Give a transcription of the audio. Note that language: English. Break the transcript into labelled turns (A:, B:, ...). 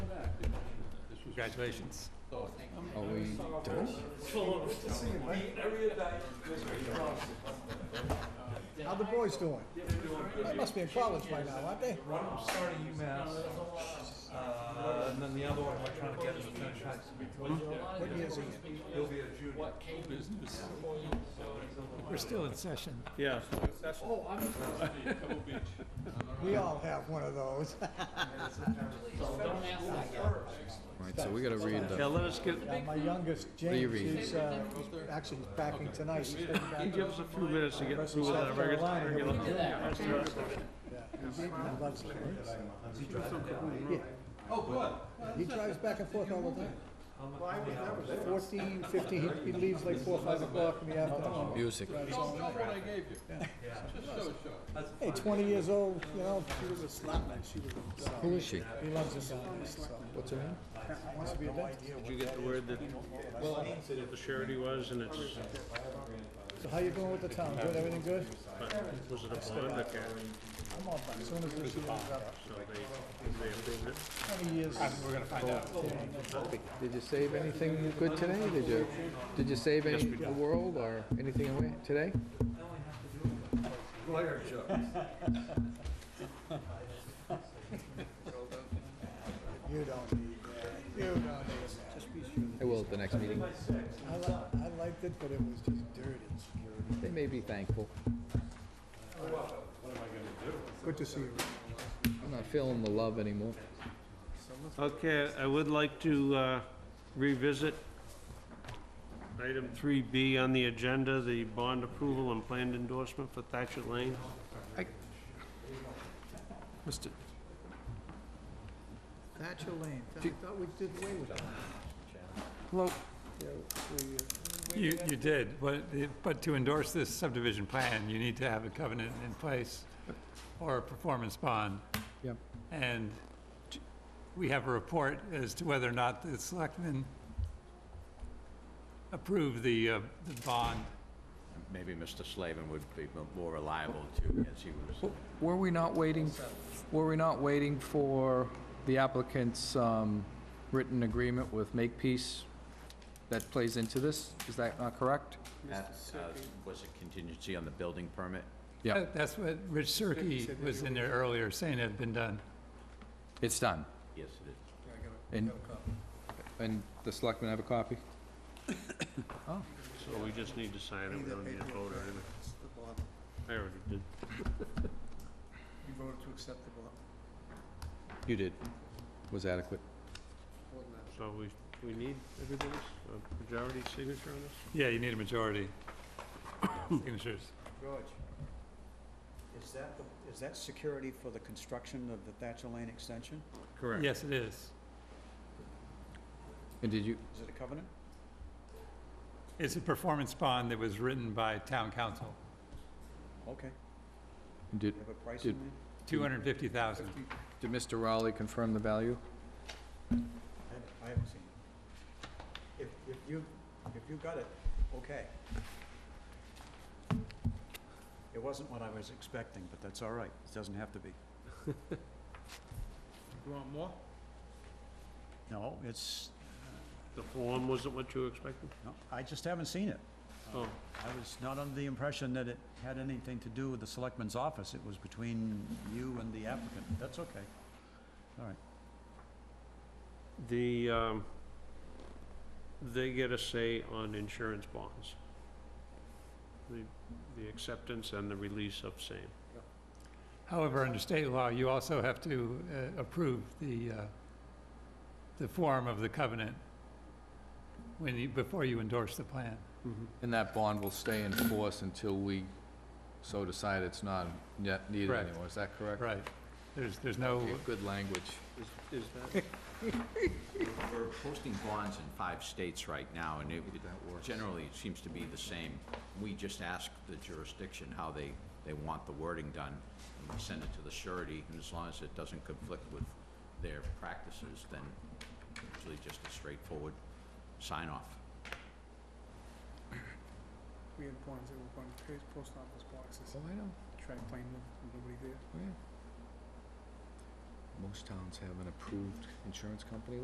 A: Congratulations.
B: Are we done?
C: How the boys doing? They must be in college by now, aren't they?
D: One of them started UMass, uh, and then the other one we're trying to get him to finish high school.
C: What year is he in?
D: He'll be a junior.
A: Business.
C: We're still in session.
A: Yeah.
C: We all have one of those.
B: All right, so we gotta read
A: Yeah,
B: the,
A: let us get,
C: Yeah, My youngest, James,
B: Reread.
C: he's, uh, he's actually he's backing tonight. He's been back
A: you give us a few minutes to get through with that. We're gonna- we're gonna-
C: and loves it. Yeah. He drives back and forth all the time. Fourteen, fifteen, he- he leaves like four, five o'clock in the afternoon.
B: music.
C: Hey, twenty years old, you know. She was a slapman, she was a uh,
B: Who is she?
C: He loves his family, so. What's her name? Wants to be a dentist.
A: Did you get the word that, that the surety was and it's,
C: So how you doing with the town? Good, everything good?
A: was it a bond or cash?
C: I'm all done. As soon as this year is up,
A: So they, they approved it?
C: how many years? We're gonna find out.
B: Did you save anything good today? Did you, did you save any, the world or anything away today?
D: Blair jokes.
C: You don't need that. You don't need that. Just be sure.
B: I will at the next meeting.
C: I li- I liked it, but it was just dirty.
B: They may be thankful.
C: Good to see you.
B: I'm not feeling the love anymore.
A: Okay, I would like to uh, revisit item 3B on the agenda, the bond approval and planned endorsement for Thatcher Lane.
B: Mr.
C: Thatcher Lane, I thought we did away with that.
B: Hello.
C: Yeah, we, uh,
E: You, you did, but, it- but to endorse this subdivision plan, you need to have a covenant in place or a performance bond.
B: Yep.
E: And j- we have a report as to whether or not the selectmen approve the, uh, the bond.
F: Maybe Mr. Slavin would be m- more reliable too, as he was.
B: Were we not waiting, were we not waiting for the applicant's, um, written agreement with Makepeace that plays into this? Is that not correct?
F: That, uh, Was a contingency on the building permit?
B: Yep.
E: That- That's what Rich Cirque was in there earlier saying had been done.
B: It's done.
F: Yes, it is.
B: And, and the selectmen have a copy?
A: So we just need to sign it, we don't need to vote on it.
C: it's the bottom.
A: I already did.
C: We voted to accept the bottom.
B: You did. Was adequate.
A: So we, we need everybody's uh, majority signature on this?
E: Yeah, you need a majority signatures.
G: George, is that, the- is that security for the construction of the Thatcher Lane extension?
F: Correct.
E: Yes, it is.
B: And did you,
G: Is it a covenant?
E: It's a performance bond that was written by town council,
G: Okay,
B: did,
G: you have a price
B: Did-
G: in there?
E: two hundred and fifty thousand.
B: did Mr. Rowley confirm the value?
G: I haven't- I haven't seen it. If, if you, if you got it, okay. It wasn't what I was expecting, but that's all right, it doesn't have to be.
A: You want more?
G: No, it's,
A: The form wasn't what you expected?
G: no, I just haven't seen it.
A: Oh,
G: I was not under the impression that it had anything to do with the selectman's office, it was between you and the applicant, that's okay. All right.
A: the, um, they get a say on insurance bonds. The, the acceptance and the release of same.
E: However, under state law, you also have to uh, approve the, uh, the form of the covenant when you, before you endorse the plan.
A: Mm-hmm.
B: And that bond will stay in force until we so decide it's not yet needed
E: Correct.
B: anymore, is that correct?
E: Right. There's, there's no,
B: Okay, Good language.
A: Is, is that?
F: We're posting bonds in five states right now, and it, it generally it seems to be the same. We just ask the jurisdiction how they, they want the wording done, and we send it to the surety, and as long as it doesn't conflict with their practices, then usually just a straightforward sign-off.
H: We had one zero one page post office boxes.
B: Oh, I know.
H: Try to find them, nobody there.
B: Most towns have an approved insurance company